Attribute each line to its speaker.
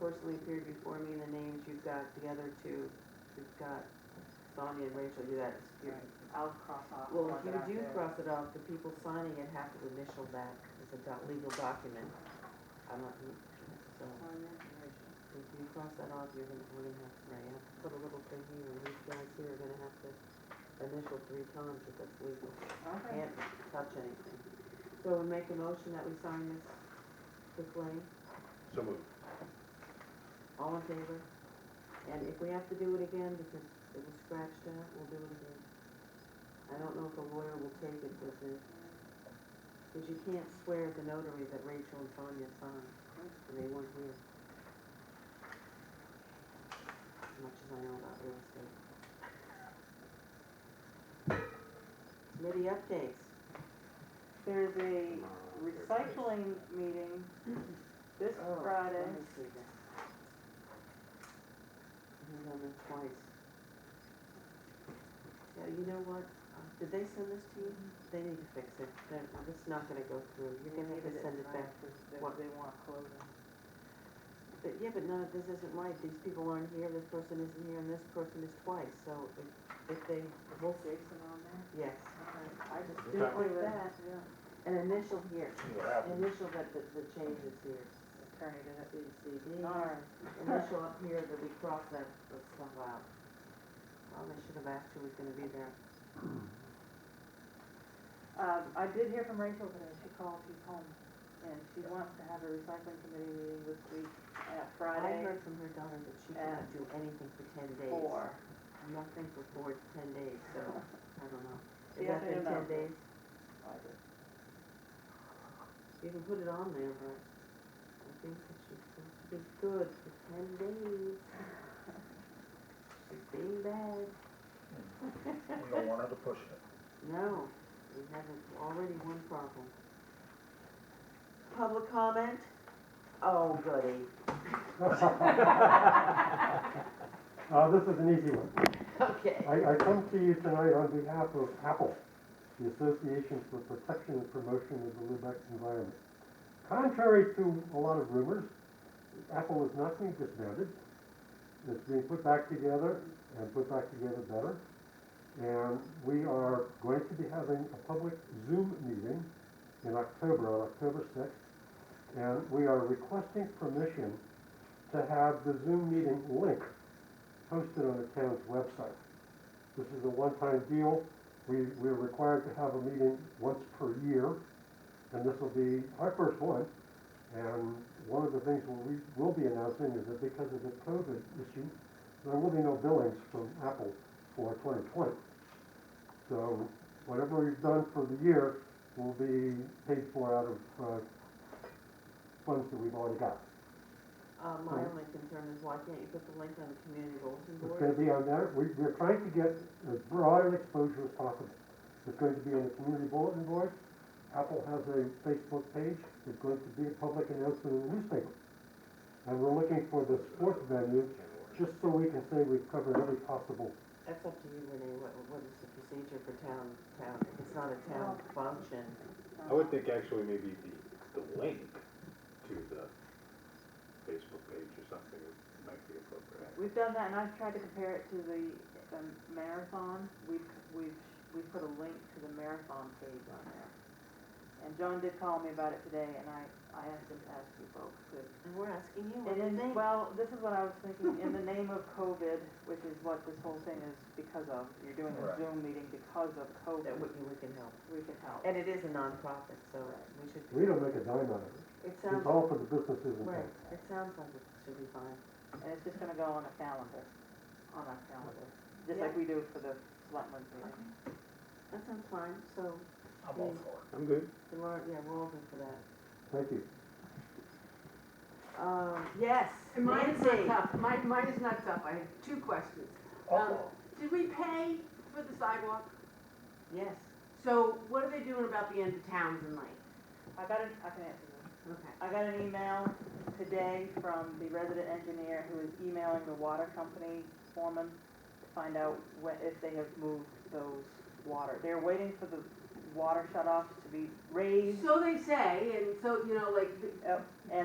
Speaker 1: personally appeared before me in the names you've got, the other two, you've got Sonia and Rachel, you got, you-
Speaker 2: I'll cross off. the
Speaker 1: well, if
Speaker 2: one
Speaker 1: you
Speaker 2: that I
Speaker 1: do
Speaker 2: did.
Speaker 1: cross it off, the people signing it have to initial that, it's a do- legal document. I'm not, so, if you cross that off, you're gonna, we're gonna have, right, you have to put a little thing here, and these guys here are gonna have to initial three times if that's legal.
Speaker 2: Okay.
Speaker 1: Can't touch anything. So we make a motion that we sign this, this lane?
Speaker 3: So moved.
Speaker 1: All in favor? And if we have to do it again because it was scratched out, we'll do it again. I don't know if a lawyer will take it with it, because you can't swear at the notary that Rachel and Sonia signed, and they weren't here. As much as I know about real estate. Committee updates.
Speaker 2: There's a recycling meeting this Friday.
Speaker 1: Let me see that. I've done this twice. Yeah, you know what, Uh, did they send this to you? They need to fix it, They're- this is not gonna go through, you're gonna have to send it back.
Speaker 2: What they want clothing.
Speaker 1: But, yeah, but none of this isn't right, these people aren't here, this person isn't here, and this person is twice, so if, if they,
Speaker 2: Will Jason on there?
Speaker 1: yes.
Speaker 2: I just
Speaker 3: Okay.
Speaker 2: do it like that, yeah.
Speaker 1: An initial here,
Speaker 3: What happened?
Speaker 1: initial that the, the change is here,
Speaker 2: Attorney did it.
Speaker 1: CCD.
Speaker 2: Darn.
Speaker 1: initial up here that we crossed that, that stuff out. Well, they should have asked who was gonna be there.
Speaker 2: Um, I did hear from Rachel today, she called, she's home, and she wants to have a recycling committee meeting this week,
Speaker 1: I
Speaker 2: uh, Friday.
Speaker 1: heard from her daughter that she cannot do anything for ten days.
Speaker 2: Four.
Speaker 1: Nothing for four to ten days, so, I don't know.
Speaker 2: She
Speaker 1: Is that
Speaker 2: hasn't
Speaker 1: been
Speaker 2: even
Speaker 1: ten
Speaker 2: opened.
Speaker 1: days?
Speaker 2: Oh,
Speaker 1: You can put it on there, but I think that she's supposed to be good for ten days. She's being bad.
Speaker 3: We don't want her to push it.
Speaker 1: No, we have a- already one problem. Public comment? Oh, goody.
Speaker 4: Uh, Oh, this is an easy one.
Speaker 1: Okay.
Speaker 4: I, I come to you tonight on behalf of Apple, the Association for Protection and Promotion of the Lubex Environment. Contrary to a lot of rumors, Apple is not being disbanded. It's being put back together and put back together better. And we are going to be having a public Zoom meeting in October, on October sixth. And we are requesting permission to have the Zoom meeting link posted on the town's website. This is a one-time deal. We, we're required to have a meeting once per year, and this will be our first one. And one of the things we will be announcing is that because of the COVID issue, there will be no billings from Apple for 2020. So whatever we've done for the year will be paid for out of uh, funds that we've already got.
Speaker 1: Uh, my only concern is why can't you put the link on the community bulletin
Speaker 4: It's
Speaker 1: board?
Speaker 4: gonna be on there, we, we're trying to get as broad an exposure as possible. It's going to be on the community bulletin board, Apple has a Facebook page, it's going to be a public announcement in the newspaper. And we're looking for the sports venue, just so we can say we've covered every possible,
Speaker 1: That's up to you, Renee, what, what is the procedure for town, town, if it's not a town function,
Speaker 3: I would think actually maybe the, the link to the Facebook page or something might be appropriate.
Speaker 2: We've done that, and I've tried to compare it to the, the marathon, we've, we've, we put a link to the marathon page on there. And John did call me about it today, and I, I asked him to ask you folks to
Speaker 1: and we're asking you what
Speaker 2: It
Speaker 1: you
Speaker 2: is,
Speaker 1: think.
Speaker 2: well, this is what I was thinking, in the name of COVID, which is what this whole thing is because of, you're doing a
Speaker 3: Right.
Speaker 2: Zoom meeting because of
Speaker 1: That
Speaker 2: COVID,
Speaker 1: we, we can help,
Speaker 2: we can help.
Speaker 1: and it is a nonprofit, so we should.
Speaker 4: we don't make a dime out of it.
Speaker 1: It
Speaker 4: It's
Speaker 1: sounds,
Speaker 4: all for the businesses and
Speaker 1: right, it
Speaker 4: things.
Speaker 1: sounds like it should be fine.
Speaker 2: And it's just gonna go on a calendar, on our calendar, just like
Speaker 1: Yeah.
Speaker 2: we do for the selectmen's meeting.
Speaker 1: That sounds fine, so,
Speaker 3: I'm
Speaker 1: all
Speaker 3: for it. I'm good.
Speaker 1: then we're, yeah, we're all good for that.
Speaker 4: Thank you.
Speaker 1: Um, yes,
Speaker 5: And Mine is not
Speaker 1: Nancy.
Speaker 5: tough, mine, mine is not tough, I have two questions. Um, Did we pay for the sidewalk?
Speaker 1: Yes,
Speaker 5: So what are they doing about the end of Townsend Lane?
Speaker 2: I got an, I can answer this.
Speaker 5: Okay.
Speaker 2: I got an email today from the resident engineer who is emailing the water company foreman to find out when, if they have moved those water. They're waiting for the water shut-offs to be raised
Speaker 5: So they say, and so, you know, like, the-
Speaker 2: uh, and